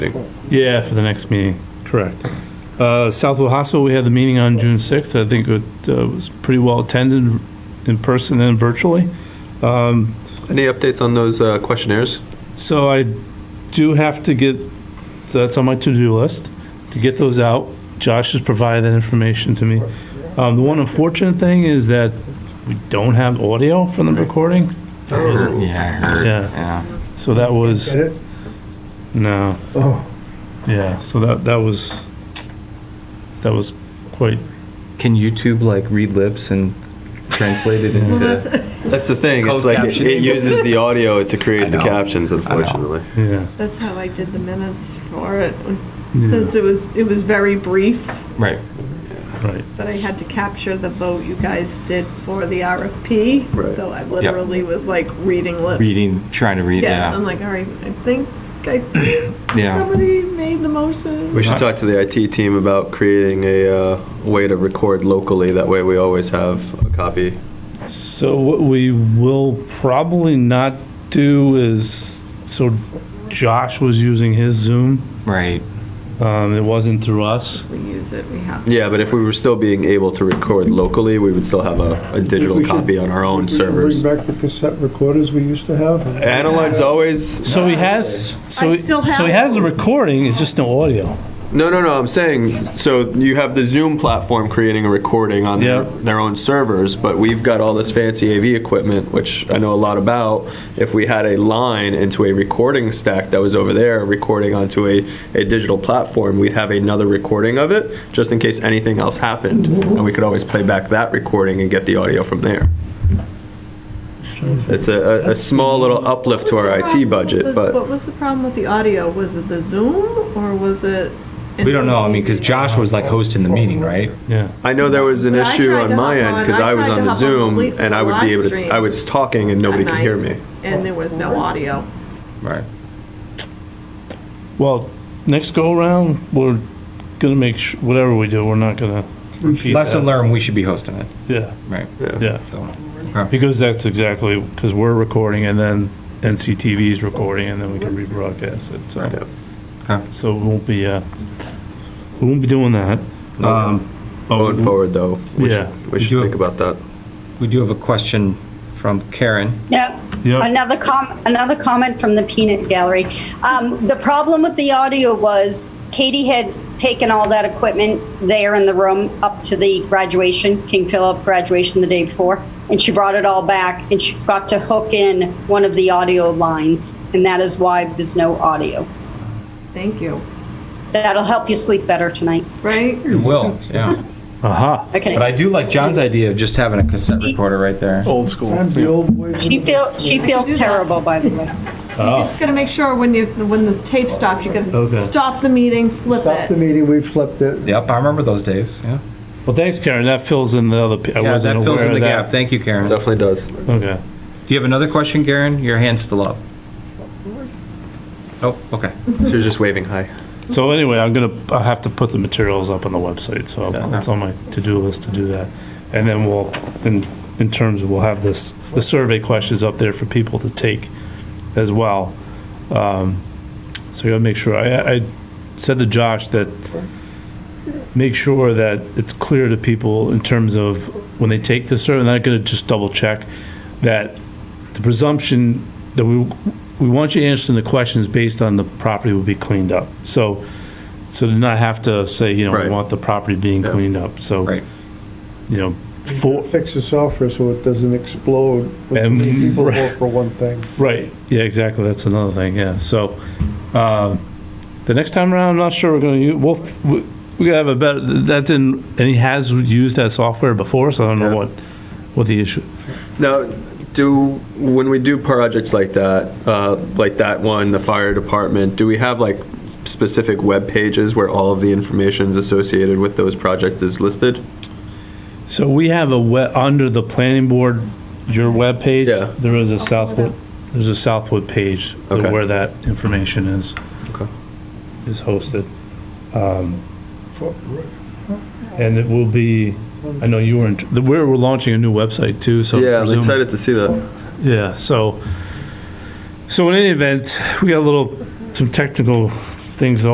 Yeah, for the next meeting, correct. Uh, Southwood Hospital, we had the meeting on June 6th. I think it uh, was pretty well attended in person and virtually. Any updates on those uh, questionnaires? So I do have to get, so that's on my to-do list, to get those out. Josh has provided that information to me. Um, The one unfortunate thing is that we don't have audio from the recording. That was- Yeah, I heard. Yeah. Yeah. So that was, no, Oh, yeah, so that, that was, that was quite Can YouTube like read lips and translate it into? That's the thing. It's Closed like it captioning. uses the audio to I create the know. captions, I know. unfortunately. Yeah. That's how I did the minutes for it, since it was, it was very brief, Right. Right. but I had to capture the vote you guys did for the RFP. Right. So I literally was like reading lips. Reading, trying to read. Yeah, I'm Yeah. like, all right, I think, I think Yeah. somebody made the motion. We should talk to the IT team about creating a uh, way to record locally. That way, we always have a copy. So what we will probably not do is, so Josh was using his Zoom. Right. Um, it wasn't through us. We use it, we have. Yeah, but if we were still being able to record locally, we would still have a, a digital We should- copy on our own we should servers. Bring back the cassette recorders we used to have. Analog's always So he has, so, I he- still so he have- has a recording, it's just no audio. no, no, no. I'm saying so you have the Zoom platform creating a recording on Yeah. their, their own servers, but we've got all this fancy AV equipment, which I know a lot about. If we had a line into a recording stack that was over there, recording onto a, a digital platform, we'd have another recording of it just in case anything else happened, and we could always play back that recording and get the audio from there. It's a, a, a small little uplift to our IT budget, but. What was the problem with the audio? Was it the Zoom or was it? We don't know. I mean, because Josh was like hosting the meeting, right? Yeah. I know there was an Yeah, I issue tried on to my hop end on- because I I was tried on to the hop on Zoom the and I would be live able to, stream. I was talking and nobody could hear me. And there was no audio. Right. Well, next go around, we're gonna make, su- whatever we do, we're not gonna repeat Lesson that. learned. We should be hosting it. Yeah, Right. yeah. So. Because that's exactly, because we're recording and then NCTV is recording and then we can rebroadcast it, so. Yep. Okay. So we won't be, uh, we won't be doing that. Um, but Going we- forward though, we Yeah. should, we should Do- think about that. We do have a question from Karen. Yeah. Yep. Another com, another comment from the peanut gallery. Um, the problem with the audio was Katie had taken all that equipment there in the room up to the graduation, King Philip graduation the day before, and she brought it all back and she forgot to hook in one of the audio lines, and that is why there's no audio. Thank you, That'll help you sleep better tonight. right? It will. Yeah. Aha. Okay. But I do like John's idea of just having a cassette recorder right there. Old school. Times the old ways. she feel she feels do that. terrible by the way. Oh. Ah. Just gotta make sure when you, when the tape stops, you Okay. gotta stop the meeting, flip Stop the it. meeting, we flipped it. Yep. I remember those days. Yeah. Well, thanks, Karen. That fills in the other, p- I Yeah. wasn't That fills aware in of the gap. that. Thank you, Karen. Do Definitely does. Okay. you have another question, Karen? Your hand's still up. Oh. Okay. She was just waving hi. So anyway, I'm gonna, I have to put the materials up on the website, so it's on my to-do list to do that. And then we'll, in, in terms, we'll have this, the survey questions up there for people to take as well. Um, So I gotta make sure, I, I said to Josh that, make sure that it's clear to people in terms of when they take the survey, and I'm gonna just double check, that the presumption that we, we want you answering the questions based on the property will be cleaned up. So, so to not have to say, you know, we Right. want the property being Yeah. cleaned up, so. Right. You know, for, Fix the software so it doesn't explode. which And- made People vote for one thing. right, yeah, exactly, that's another thing, yeah, so, um, the next time around, I'm not sure we're gonna, u- we'll, f- we- we gotta have a better, that didn't, and he has used that software before, so I don't Yeah. know what, what the issue, Now, do, when we do projects like that, uh, like that one, the fire department, do we have like specific web pages where all of the information associated with those projects is listed? So we have a we, under the planning board, your webpage. Yeah. There is a pull it Southwood, up. there's a Southwood page Okay. where that information is. Okay. Is hosted. Um, And it will be, I know you were, in- the- we're, we're launching a new website too, so. Yeah, I'm presume- excited to see that. Yeah, so, so in any event, we got a little, some technical things